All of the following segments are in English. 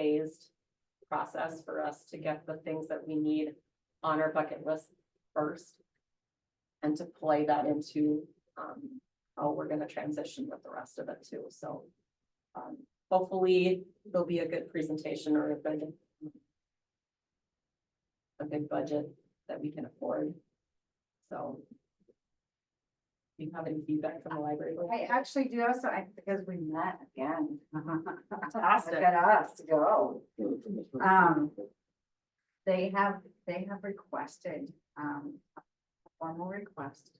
phased process for us to get the things that we need on our bucket list first. And to play that into, um, how we're gonna transition with the rest of it too, so. Um, hopefully there'll be a good presentation or a good. A good budget that we can afford. So. Do you have any feedback from the library? I actually do also, I, because we met again. Fantastic. Look at us to go. Um, They have, they have requested, um, a formal request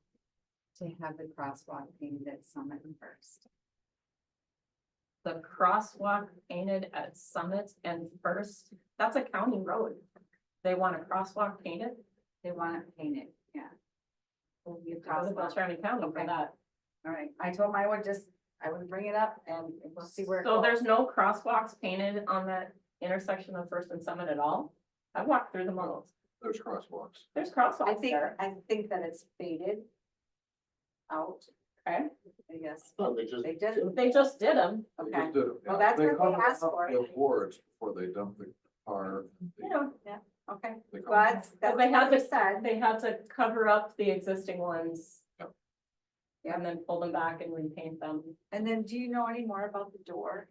to have the crosswalk painted at Summit first. The crosswalk painted at Summit and First, that's a county road. They want a crosswalk painted? They want it painted, yeah. Will be a I was about crosswalk. trying to count them for that. All right, I told them I would just, I would bring it up and we'll see where. it So goes. there's no crosswalks painted on that intersection of First and Summit at all? I walked through the malls. There's crosswalks. There's I crosswalks think, there. I think that it's faded out, Okay, I guess. No, they just. They just, they just did them. they okay. just did it. Well, that's They what they come asked up for. with Awards before they dump the car. They- Yeah, Okay, they come well, up that's, that's they had what they to- said. they had to cover up the existing ones. Yep. And then pull them back and repaint them. And then do you know any more about the door?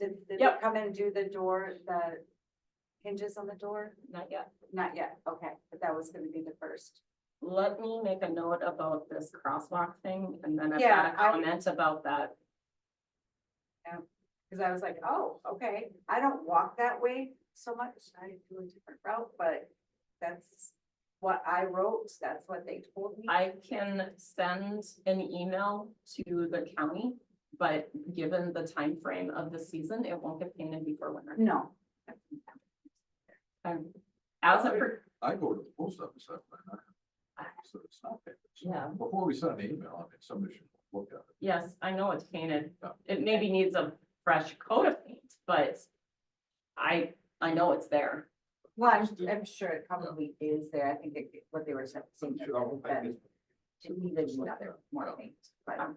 Did, did they Yep. come and do the door, the hinges on the door? Not yet. Not yet, okay, but that was gonna be the first. Let me make a note about this crosswalk thing and then I've got Yeah, a I- comment about that. Cause I was like, oh, okay, I don't walk that way so much, I do a different route, but that's what I wrote, that's what they told me. I can send an email to the county, but given the time frame of the season, it won't get painted before winter. No. I'm, as a, per- with- I go to the post office. that way, and I- So it's not there. So Yeah. Before we send an email, I mean, somebody should look at it. yes, I know it's painted. Yeah. It maybe needs a fresh coat of paint, but I, I know it's there. Well, I'm, I'm sure it probably is there, I think it- what they were saying. that it Sure, would've I been guess. To me, there's another more paint, but I'm,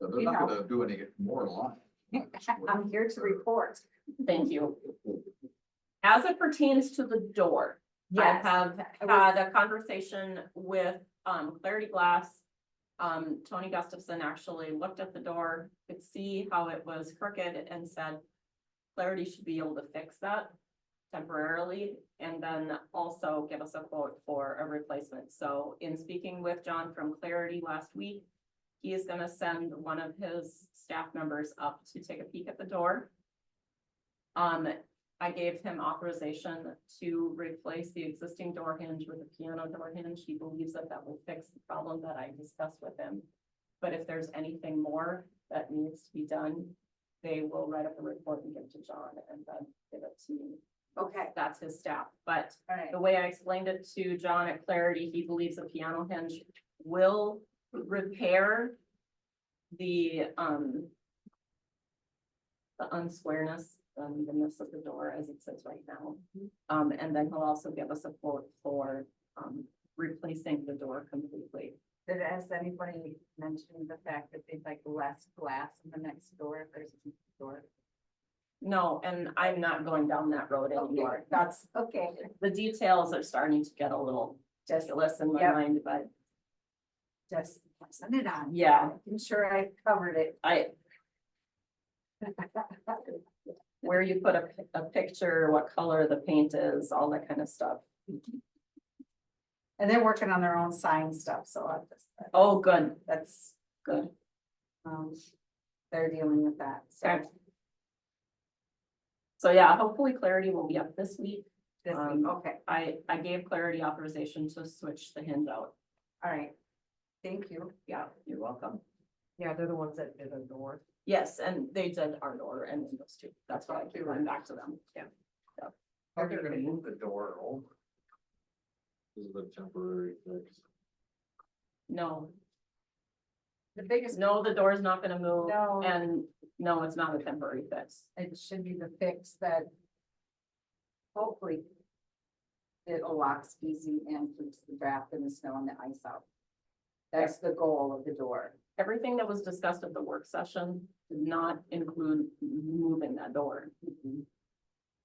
But They're You not gonna do any more line. I'm here to report. Thank you. As it pertains to the door, I have I had was- a conversation with um Clarity Glass. Um, Tony Gustafson actually looked at the door, could see how it was crooked and said. Clarity should be able to fix that temporarily and then also give us a quote for a replacement. So in speaking with John from Clarity last week. He is gonna send one of his staff members up to take a peek at the door. Um, I gave him authorization to replace the existing door hinge with a piano door hinge. He believes that that will fix the problem that I discussed with him. But if there's anything more that needs to be done, they will write up a report and give it to John and then give it to me. Okay, That's his staff, but all right, the way I explained it to John at Clarity, he believes a piano hinge will repair the, um, the unsquareness, the unevenness of the door as it sits right now. Um, and then he'll also give us a quote for, um, replacing the door completely. did, has anybody mentioned the fact that they'd like less glass in the next door if there's a door? No, and I'm not going down that road anymore. Okay. That's, Okay, the details are starting to get a little just, ridiculous in my Yep. mind, but just passing it on. Yeah. I'm sure I covered it. I, where you put a, pic- a picture, what color the paint is, all that kind of stuff. And they're working on their own sign stuff, so I just, Oh, good, that's, good. um, they're dealing with that, so. Okay. So yeah, hopefully clarity will be up this week. this- Um, okay, I, I gave clarity authorization to switch the hinge out. all right. Thank you. Yeah, you're welcome. Yeah, they're the ones that did the door. Yes, and they did our door and windows too. That's why I keep going back to them. Yeah. They're gonna move the door over. This is a temporary fix. No, The biggest, no, the door's not gonna move no, and no, it's not a temporary fix. it should be the fix that hopefully it locks easy and keeps the draft and the snow and the ice out. That's the goal of the door. Everything that was discussed at the work session did not include moving that door.